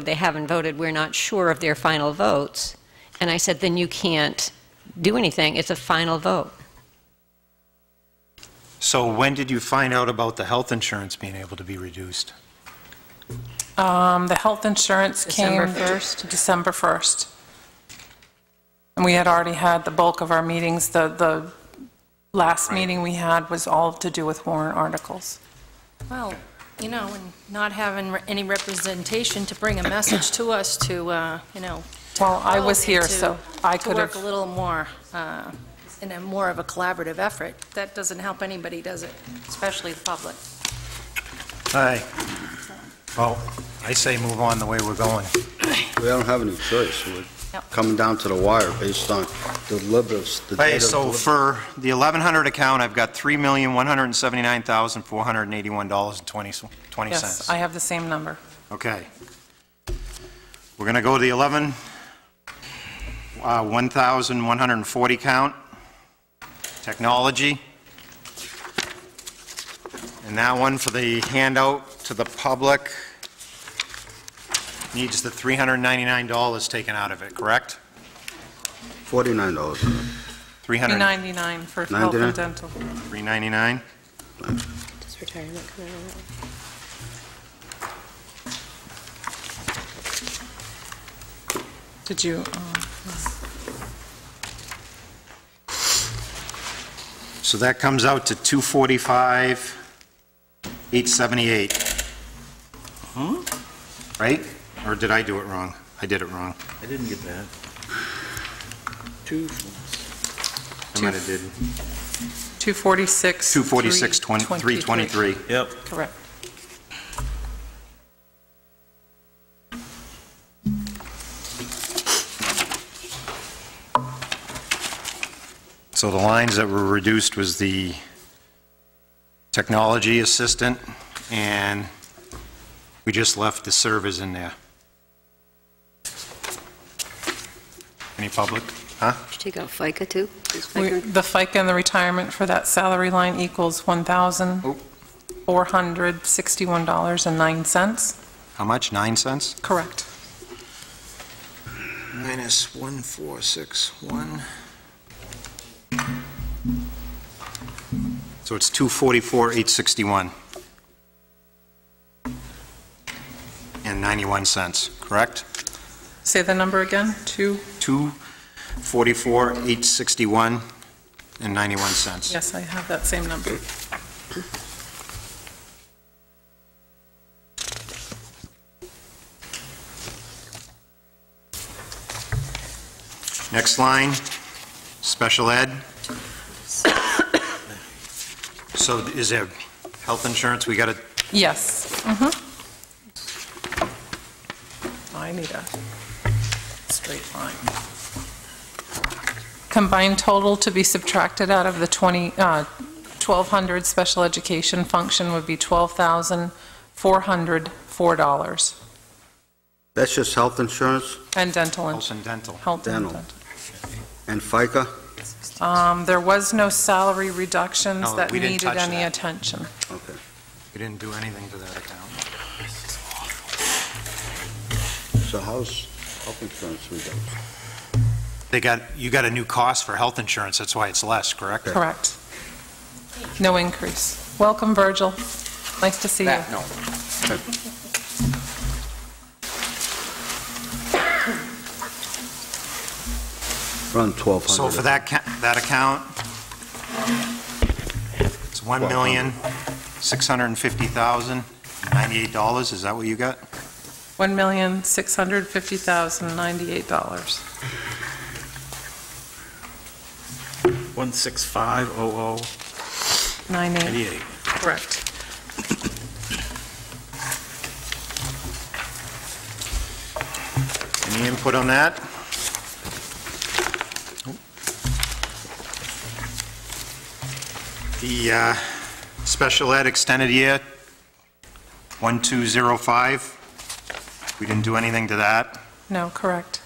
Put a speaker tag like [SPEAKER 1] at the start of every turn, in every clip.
[SPEAKER 1] they haven't voted, we're not sure of their final votes. And I said, then you can't do anything, it's a final vote.
[SPEAKER 2] So when did you find out about the health insurance being able to be reduced?
[SPEAKER 3] Um, The health insurance came...
[SPEAKER 1] December 1st?
[SPEAKER 3] December 1st. And we had already had the bulk of our meetings, the, the last meeting we had was all to do with warrant articles.
[SPEAKER 4] Well, you know, and not having re- any representation to bring a message to us to, uh, you know...
[SPEAKER 3] Well, I was here,
[SPEAKER 4] to-
[SPEAKER 3] so I could
[SPEAKER 4] To work a
[SPEAKER 3] have,
[SPEAKER 4] little more, uh, in a more of a collaborative effort. That doesn't help anybody, does it? Especially the public.
[SPEAKER 2] Aye. Well, I say move on the way we're going.
[SPEAKER 5] We don't have any choice. We're
[SPEAKER 4] Yep.
[SPEAKER 5] coming down to the wire based on deliberative. the
[SPEAKER 2] Hey,
[SPEAKER 5] data
[SPEAKER 2] so
[SPEAKER 5] deliberative.
[SPEAKER 2] for the 1,100 account, I've got $3,179,481.20.
[SPEAKER 3] yes, I have the same number.
[SPEAKER 2] Okay. We're going to go to the 11, uh, 1,140 count, technology. And that one for the handout to the public needs the $399 taken out of it, correct?
[SPEAKER 5] $49.
[SPEAKER 2] 300,
[SPEAKER 3] 299 for health and
[SPEAKER 5] 99?
[SPEAKER 3] dental.
[SPEAKER 2] 399?
[SPEAKER 6] Does retirement come out of that?
[SPEAKER 3] Did you, um,
[SPEAKER 2] So that comes out to 245, 878. Right? Or did I do it wrong? I did it wrong.
[SPEAKER 7] I didn't get that. Two,
[SPEAKER 2] I might have did.
[SPEAKER 3] 246?
[SPEAKER 2] 246, 323.
[SPEAKER 7] yep.
[SPEAKER 3] Correct.
[SPEAKER 2] So the lines that were reduced was the technology assistant, and we just left the servers in there. Any public? Huh?
[SPEAKER 6] Should take out FICA too? Is
[SPEAKER 3] We-
[SPEAKER 6] FICA-
[SPEAKER 3] The FICA and the retirement for that salary line equals $1,461.09.
[SPEAKER 2] How much? Nine cents?
[SPEAKER 3] Correct.
[SPEAKER 7] Minus one, four, six, one.
[SPEAKER 2] So it's 244, 861. And 91 cents, correct?
[SPEAKER 3] Say the number again, two,
[SPEAKER 2] 244, 861, and 91 cents.
[SPEAKER 3] yes, I have that same number.
[SPEAKER 2] Next line, special ed. So is there health insurance, we got to,
[SPEAKER 3] Yes. Mm-hmm. I need a straight line. Combined total to be subtracted out of the 20, uh, 1,200 special education function would be $12,404,
[SPEAKER 5] That's just health insurance
[SPEAKER 3] and dental and
[SPEAKER 2] health and dental?
[SPEAKER 3] health and
[SPEAKER 5] Dental. and FICA?
[SPEAKER 3] dental. Um, There was no salary reductions
[SPEAKER 2] No,
[SPEAKER 3] that
[SPEAKER 2] we didn't
[SPEAKER 3] needed
[SPEAKER 2] touch
[SPEAKER 3] any
[SPEAKER 2] that.
[SPEAKER 3] attention.
[SPEAKER 5] Okay.
[SPEAKER 2] We didn't do anything to that account.
[SPEAKER 5] So how's health insurance reduction?
[SPEAKER 2] They got, you got a new cost for health insurance, that's why it's less, correct?
[SPEAKER 3] Correct. No increase. Welcome, Virgil. Nice to see you.
[SPEAKER 2] No.
[SPEAKER 5] Run 1,200.
[SPEAKER 2] So for that, ca- that account, it's $1,650,098, is that what you got?
[SPEAKER 3] $1,650,098.
[SPEAKER 7] One, six, five, oh, oh,
[SPEAKER 3] 98,
[SPEAKER 7] eighty-eight.
[SPEAKER 3] correct.
[SPEAKER 2] Any input on that? The uh, special ed extended year, 1205, we didn't do anything to that.
[SPEAKER 3] No, correct.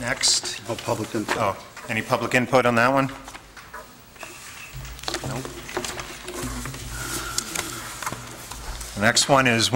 [SPEAKER 2] Next,
[SPEAKER 5] Oh, public input.
[SPEAKER 2] oh, any public input on that one? Nope. The next one is